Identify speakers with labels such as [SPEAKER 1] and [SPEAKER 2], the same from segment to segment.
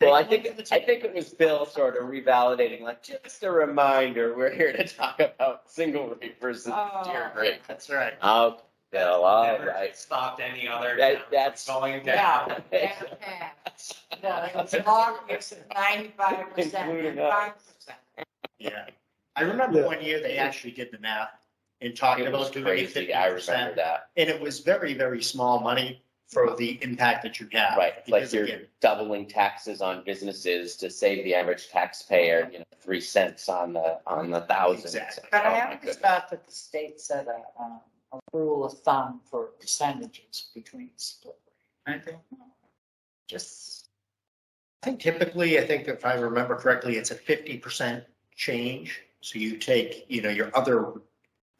[SPEAKER 1] Well, I think, I think it was Bill sort of revalidating, like, just a reminder, we're here to talk about single rate versus
[SPEAKER 2] Oh.
[SPEAKER 1] tier rate.
[SPEAKER 3] That's right.
[SPEAKER 1] Oh, Bill, all
[SPEAKER 3] Never
[SPEAKER 1] right.
[SPEAKER 3] Stopped any other.
[SPEAKER 1] That-
[SPEAKER 3] town from
[SPEAKER 1] that's-
[SPEAKER 3] Going down.
[SPEAKER 2] No, that's bad. No, it's long, it's ninety-five
[SPEAKER 1] Including
[SPEAKER 2] percent, five percent.
[SPEAKER 4] Yeah. I remember
[SPEAKER 5] Yeah.
[SPEAKER 4] one year they actually did the math and talked
[SPEAKER 1] It was
[SPEAKER 4] about doing fifty
[SPEAKER 1] crazy, I remember
[SPEAKER 4] percent.
[SPEAKER 1] that,
[SPEAKER 4] And it was very, very small money for the impact that you have.
[SPEAKER 1] right, like
[SPEAKER 4] Because
[SPEAKER 1] you're
[SPEAKER 4] again,
[SPEAKER 1] doubling taxes on businesses to save the average taxpayer, you know, three cents on the, on the thousand.
[SPEAKER 4] Exactly.
[SPEAKER 2] But
[SPEAKER 1] Oh,
[SPEAKER 2] I
[SPEAKER 1] my
[SPEAKER 2] always
[SPEAKER 1] goodness.
[SPEAKER 2] thought that the state set a, um, a rule of thumb for percentages between split.
[SPEAKER 4] I think-
[SPEAKER 2] Just,
[SPEAKER 4] I think typically, I think if I remember correctly, it's a fifty percent change. So you take, you know, your other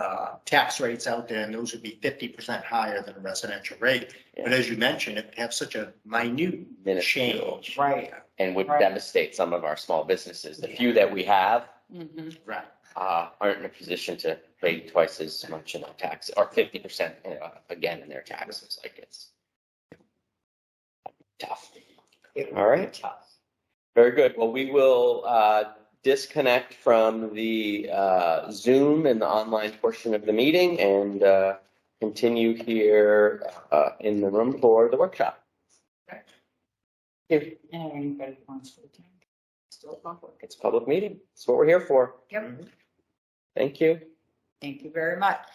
[SPEAKER 4] uh, tax rates out there and those would be fifty percent higher than a residential rate. But as you mentioned, it would have such a minute
[SPEAKER 1] Minuscule.
[SPEAKER 4] change.
[SPEAKER 2] right.
[SPEAKER 1] and would
[SPEAKER 2] Right.
[SPEAKER 1] devastate some of our small businesses. The few that we have
[SPEAKER 4] Right.
[SPEAKER 1] uh, aren't in a position to pay twice as much in their tax or fifty percent again in their taxes. Like it's tough.
[SPEAKER 2] It
[SPEAKER 1] All right.
[SPEAKER 2] would be tough.
[SPEAKER 1] Very good. Well, we will uh, disconnect from the uh, Zoom and the online portion of the meeting and uh, continue here uh, in the room for the workshop.
[SPEAKER 2] And anybody who wants to attend. Still public.
[SPEAKER 1] It's a public meeting. It's what we're here for.
[SPEAKER 2] Yep.
[SPEAKER 1] Thank you.
[SPEAKER 2] Thank you very much.